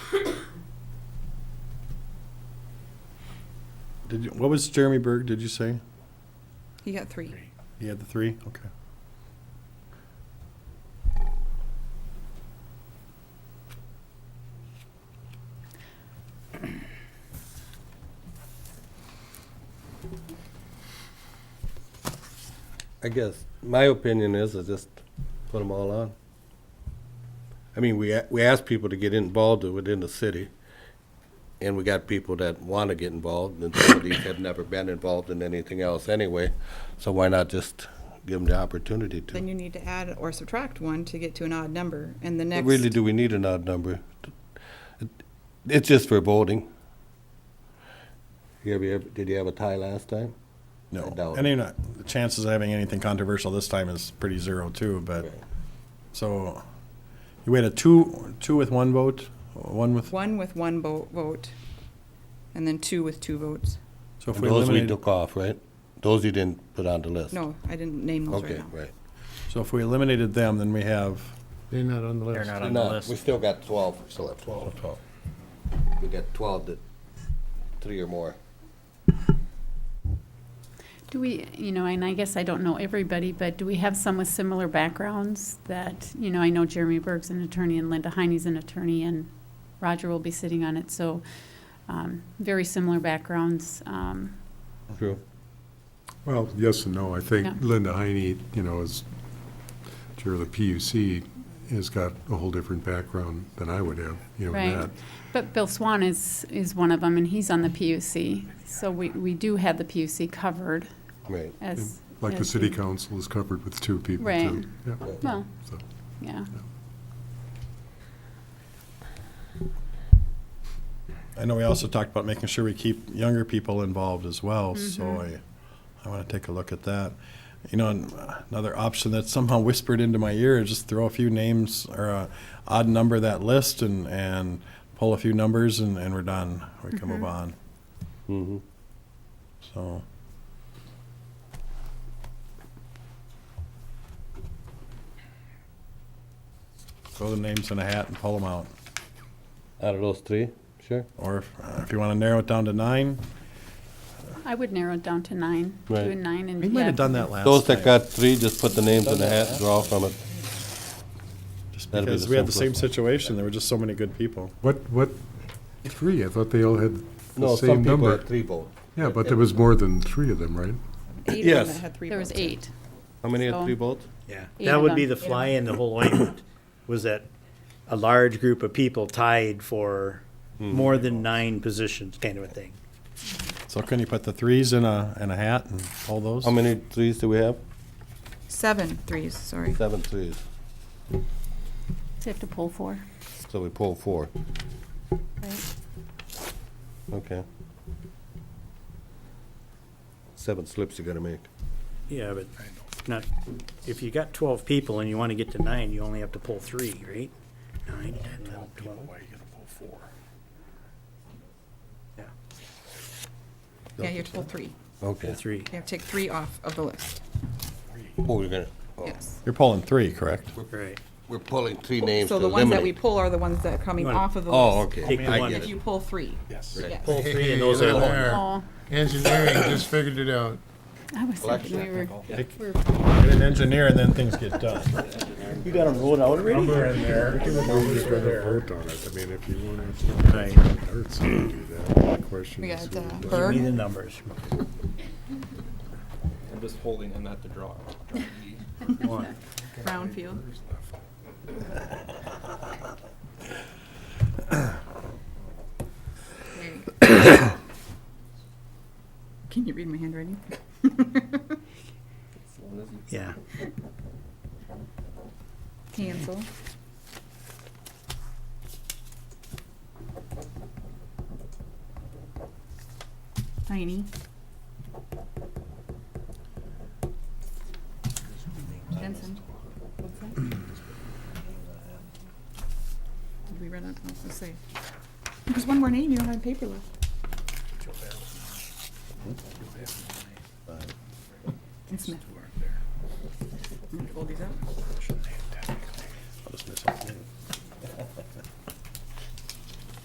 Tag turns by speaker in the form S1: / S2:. S1: Did you, what was Jeremy Berg, did you say?
S2: You got three.
S1: He had the three? Okay.
S3: I guess my opinion is I just put them all on. I mean, we a- we ask people to get involved within the city, and we got people that want to get involved, and some of these have never been involved in anything else anyway. So why not just give them the opportunity
S2: Then
S3: to?
S2: you need to add or subtract one to get to an odd number, and the next.
S3: Really, do we need an odd number? It- It's just for voting. You ever, did you have a tie last time? I
S1: No,
S3: doubt
S1: and
S3: it.
S1: you're not, the chances of having anything controversial this time is pretty zero too, but, so, you had a two, two with one vote, one with,
S2: One with one bo- vote, and then two with two votes.
S1: so if
S3: And
S1: we
S3: those we
S1: eliminate,
S3: took off, right? Those you didn't put on the list?
S2: No, I didn't name those right
S3: Okay,
S2: now.
S3: right.
S1: so if we eliminated them, then we have,
S4: They're not on the list.
S5: They're not on the
S3: No, we
S5: list.
S3: still got twelve, still have twelve. We got twelve that, three or more.
S6: Do we, you know, and I guess I don't know everybody, but do we have some with similar backgrounds that, you know, I know Jeremy Berg's an attorney and Linda Heine's an attorney and Roger will be sitting on it, so, um, very similar backgrounds. Um,
S3: True.
S7: Well, yes and no. I
S6: Yeah.
S7: think Linda Heine, you know, as chair of the PUC, has got a whole different background than I would have, you know, in
S6: Right.
S7: that.
S6: But Bill Swan is, is one of them and he's on the PUC, so we, we do have the PUC covered
S3: Right.
S6: as.
S7: Like the
S6: as
S7: city
S6: the-
S7: council is covered with two people,
S6: Right.
S7: too. Yeah,
S6: Well,
S7: so.
S6: yeah.
S1: I know we also talked about making sure we keep younger people involved as well, so I, I wanna take a look at that. You know, and uh, another option that somehow whispered into my ear is just throw a few names or a odd number of that list and, and pull a few numbers and, and we're done. We can move on,
S3: Mm-hmm.
S1: so. Throw the names in a hat and pull them out.
S3: Out of those three, sure.
S1: Or if, uh, if you wanna narrow it down to nine,
S6: I would narrow it down to nine, do
S3: Right.
S6: a nine and.
S1: we might
S6: yeah.
S1: have done that last time.
S3: Those that got three, just put the names in the hat, and draw from it.
S1: Just
S3: That'd be
S1: because
S3: the
S1: we had the same
S3: simplest one.
S1: situation, there were just so many good people.
S7: What, what, three? I thought they all had
S3: No,
S7: the
S3: some
S7: same
S3: people
S7: number.
S3: had three votes.
S7: Yeah, but there was more than three of them, right?
S2: Eight of them
S3: Yes.
S2: that had three
S6: There was
S2: votes.
S6: eight.
S3: How many had
S6: So-
S3: three votes?
S5: Yeah,
S6: Eight
S5: that
S6: of
S5: would be the
S6: them.
S5: fly in the whole ointment, was that a large group of people tied for more than nine positions, kind of a thing.
S1: So can you put the threes in a, in a hat and pull those?
S3: How many threes do we have?
S2: Seven threes, sorry.
S3: Seven threes.
S6: So you have to pull four,
S3: So we pull four.
S6: right?
S3: Okay. Seven slips you're gonna make.
S5: Yeah, but not, if you got twelve people and you want to get to nine, you only have to pull three, right? Nine, ten, eleven, twelve.
S2: Yeah, you have to pull three.
S3: Okay.
S5: Pull three.
S2: You have to take three off of the list.
S3: Oh, you're gonna, oh,
S2: Yes.
S1: You're pulling three, correct?
S5: Right.
S3: we're pulling three names to
S2: So the ones that we
S3: eliminate.
S2: pull are the ones that are coming
S5: You wanna-
S2: off of the
S3: Oh,
S2: list.
S3: okay.
S5: Take the
S3: I
S5: one-
S3: get
S2: If
S3: it.
S2: you pull three.
S1: Yes.
S2: Yes.
S5: Pull three and those are all.
S6: Oh,
S4: Engineering just figured it out.
S6: I was thinking we were.
S1: Get an engineer and then things get done.
S5: You got them rolled out already?
S7: Nobody's going to vote on it. I mean, if you want to,
S5: Right.
S7: it's going to do that. The question
S2: We
S7: is.
S2: got uh,
S5: Give me the
S2: Berg,
S5: numbers.
S8: I'm just holding him at the draw.
S5: One.
S2: Brownfield. There you go. Can you read my handwriting?
S5: Yeah.
S2: Hansel. Tiny. Jensen. What's that? Did we run out? Oh, I was gonna say. There's one more name. You don't have paper left. And Smith. I'm gonna fold these out.